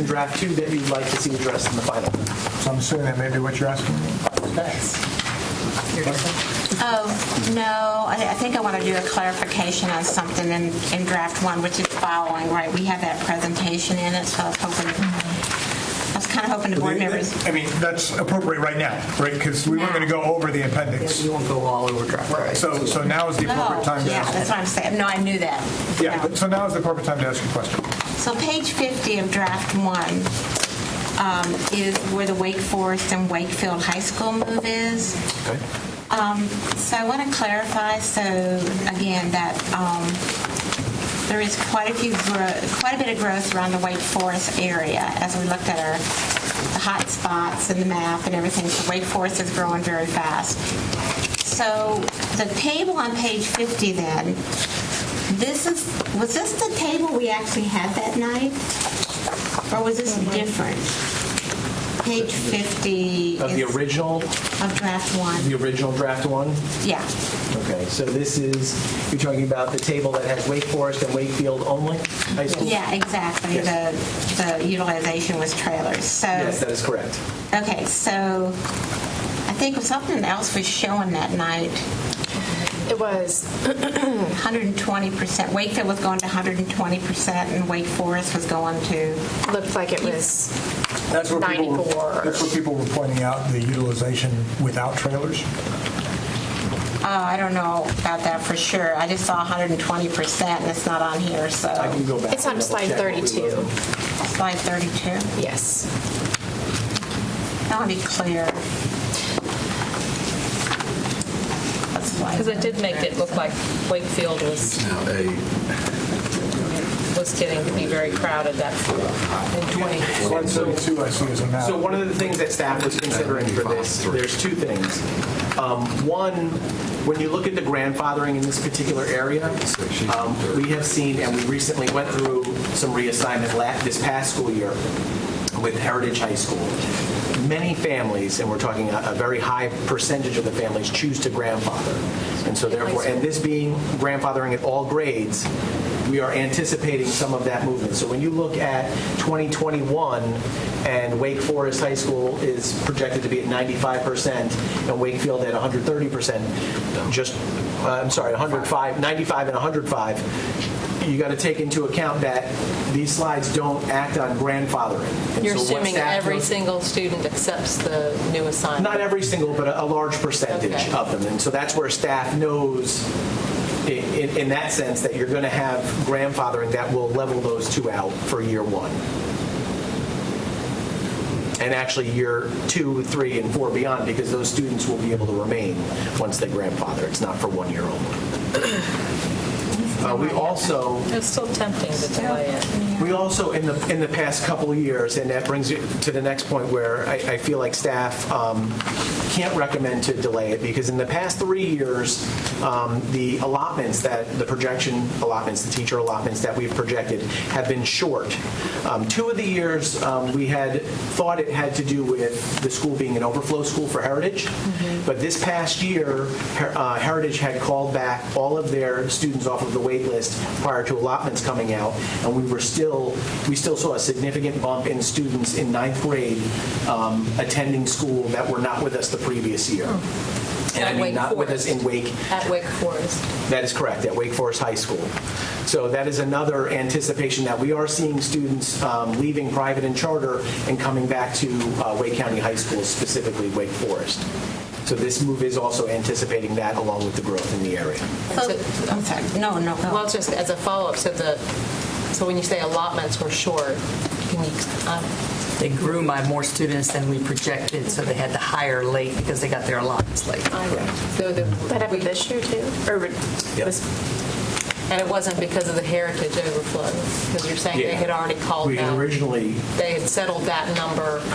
in draft two that you'd like to see addressed in the final. So I'm assuming that may be what you're asking. Oh, No, I I think I want to do a clarification on something in in draft one, which is following, right? We have that presentation in it, so I was hoping, I was kind of hoping the board members, I mean, that's appropriate right now, right? Because we weren't going to go over the appendix. You won't go all over draft. Right. So, so now is the no, appropriate time to oh, yeah, ask. that's what I'm saying. No, I knew that. Yeah, but- so now is the appropriate time to ask your question. So page 50 of draft one um, is where the Wake Forest and Wakefield High School move is. Um, So I want to clarify, so again, that um, there is quite a few, gro- quite a bit of growth around the Wake Forest area as we looked at our hot spots and the map and everything. So Wake Forest is growing very fast. So the table on page 50 then this is, was this the table we actually had that night? Or was this different? Page 50 Of the is- original, of draft one, the original draft one? yeah. Okay, so this is, you're talking about the table that has Wake Forest and Wakefield only high school? Yeah, exactly, the, the utilization was trailers, so. Yes, that is correct. Okay, so I think something else was showing that night, It was, 120%, Wakefield was going to 120% and Wake Forest was going to, looked like it was, That's where people were- 94. That's where people were pointing out the utilization without trailers. oh, I don't know about that for sure. I just saw 120% and it's not on here, so. I can go back. it's on and double slide check what we 32, wrote. Slide 32. yes. I want to be clear. Because it did make it look like Wakefield was, Now, a, was getting to be very crowded that in 20. Slide 32 I see as a map. So one of the things that staff was considering for this, there's two things. Um, One, when you look at the grandfathering in this particular area, um, we have seen, and we recently went through some reassignment la- this past school year with Heritage High School. Many families, and we're talking a a very high percentage of the families, choose to grandfather. And so therefore, and this being grandfathering at all grades, we are anticipating some of that movement. So when you look at 2021, and Wake Forest High School is projected to be at 95%, and Wakefield at 130%, just, uh, I'm sorry, 105, 95 and 105, you got to take into account that these slides don't act on grandfathering. And You're so what assuming staff every does- single student accepts the new assignment? Not every single, but a a large percentage Okay. of them. And so that's where staff knows, i- in in that sense, that you're going to have grandfathering that will level those two out for year one. And actually, year two, three, and four beyond, because those students will be able to remain once they grandfather. It's not for one year only. Uh, We also, It's still tempting to delay it. we also, in the, in the past couple of years, and that brings you to the next point where I, I feel like staff um, can't recommend to delay it, because in the past three years, um, the allotments that, the projection allotments, the teacher allotments that we've projected have been short. Um, Two of the years, um, we had thought it had to do with the school being an overflow school for Heritage, but this past year, Her- uh, Heritage had called back all of their students off of the wait list prior to allotments coming out, and we were still, we still saw a significant bump in students in ninth grade um, attending school that were not with us the previous year. And I mean, At Hmm. Wake not with us in Forest. Wake, At Wake Forest, that is correct, at Wake Forest High School. So that is another anticipation that we are seeing students um, leaving private and charter and coming back to uh, Wake County High School, specifically Wake Forest. So this move is also anticipating that along with the growth in the area. So, I'm sorry, no, no, Oh. well, go. it's just as a follow-up, so the, so when you say allotments were short, can you, um, They grew by more students than we projected, so they had to hire late because they got their allotments late. so the. That happened this year too, or this And it wasn't because of the heritage overflow, because you're saying they Yeah. had already called We had out, originally, they had settled that number ahead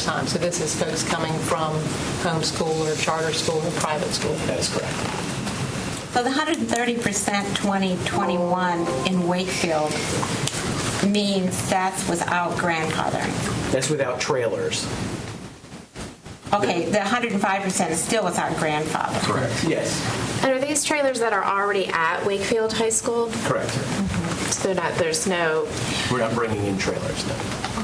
Correct. time. So this is folks coming from homeschool or charter school or private school. that is correct. So the 130% 2021 in Wakefield means that's without grandfathering. That's without trailers. Okay, the 105% is still without grandfathering. Correct. Yes, And are these trailers that are already at Wakefield High School? correct. So not, there's no, We're not bringing in trailers, no.